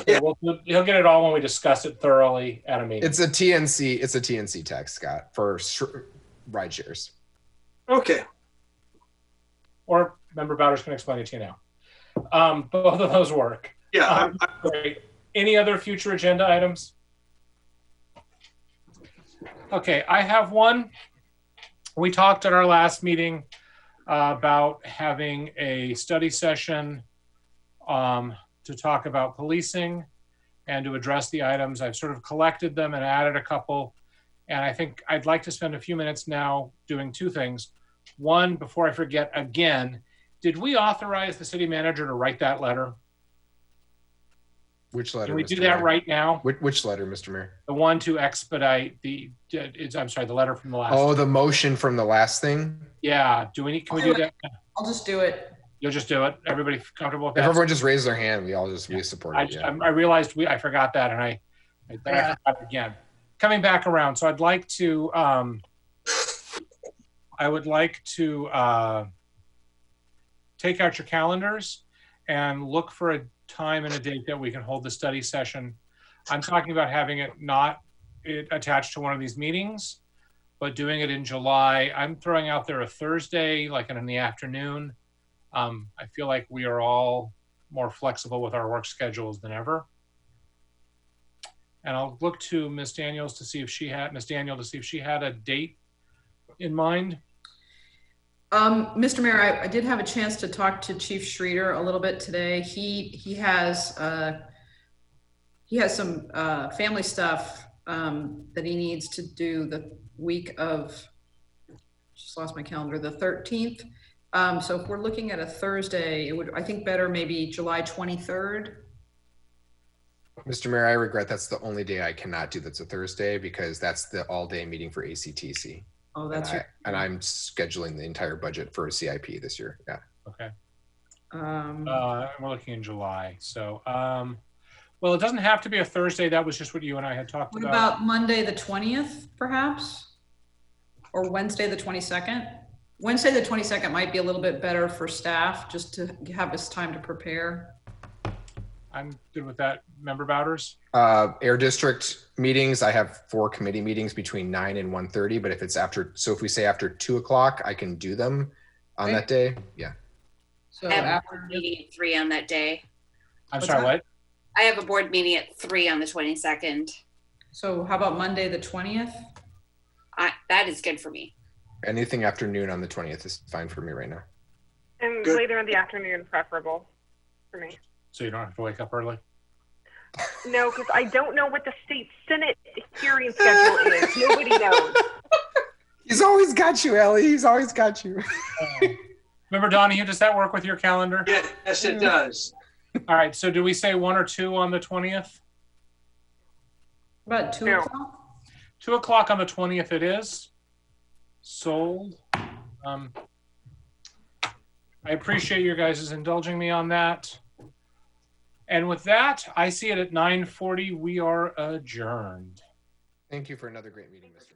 Okay, well, he'll get it all when we discuss it thoroughly at a meeting. It's a TNC. It's a TNC tax, Scott, for sure, ride shares. Okay. or member Bowders can explain it to you now. Um, both of those work. Yeah. I'm- I'm- Great. Any other future agenda items? Okay, I have one. We talked at our last meeting uh, about having a study session um, to talk about policing and to address the items. I've sort of collected them and added a couple. And I think I'd like to spend a few minutes now doing two things. One, before I forget again, did we authorize the city manager to write that letter? Which letter? Can we Mr. do that Mayor? right now? Which, which letter, Mr. Mayor? The one to expedite the, it's, I'm sorry, the letter from the last. Oh, the motion from the last thing. Yeah, do we need, can we do that? I'll just do it. You'll just do it. Everybody comfortable with If that? everyone just raised their hand, we all just we support I, it. Yeah. I realized we, I forgot that and I, I- then I forgot again. Coming back around, so I'd like to, um, I would like to, uh, take out your calendars and look for a time and a date that we can hold the study session. I'm talking about having it not it attached to one of these meetings, but doing it in July. I'm throwing out there a Thursday, like in the afternoon. Um, I feel like we are all more flexible with our work schedules than ever. And I'll look to Ms. Daniels to see if she had, Ms. Daniel to see if she had a date in mind. Um, Mr. Mayor, I, I did have a chance to talk to Chief Schreeder a little bit today. He, he has, uh, he has some, uh, family stuff, um, that he needs to do the week of, just lost my calendar, the thirteenth. Um, so if we're looking at a Thursday, it would, I think better maybe July twenty-third. Mr. Mayor, I regret that's the only day I cannot do. That's a Thursday because that's the all-day meeting for ACTC, Oh, and, that's I, your, and I'm scheduling the entire budget for a CIP this year. Yeah. Okay. um, Uh, we're looking in July. So, um, well, it doesn't have to be a Thursday. That was just what you and I had talked what about. about Monday, the twentieth, perhaps? Or Wednesday, the twenty-second? Wednesday, the twenty-second might be a little bit better for staff, just to have us time to prepare. I'm good with that. Member Bowders? Uh, air district meetings. I have four committee meetings between nine and 1.30, But if it's after, so if we say after two o'clock, I can do them on that day. Yeah. So I have a after, board meeting at three on that day. I'm What's sorry, that? what? I have a board meeting at three on the twenty-second. so how about Monday, the twentieth? I, that is good for me. Anything after noon on the 20th is fine for me right now. And Good. later in the afternoon, preferable for me. So you don't have to wake up early? No, because I don't know what the state senate hearing schedule is. Nobody knows. He's always got you, Ellie. He's always got you. Member Donahue, does that work with your calendar? Yes, it does. All right. So do we say one or two on the 20th? About two No. o'clock? Two o'clock on the twentieth it is. Sold. Um, I appreciate your guys' indulging me on that. And with that, I see it at nine forty. We are adjourned. Thank you for another great meeting, Mr.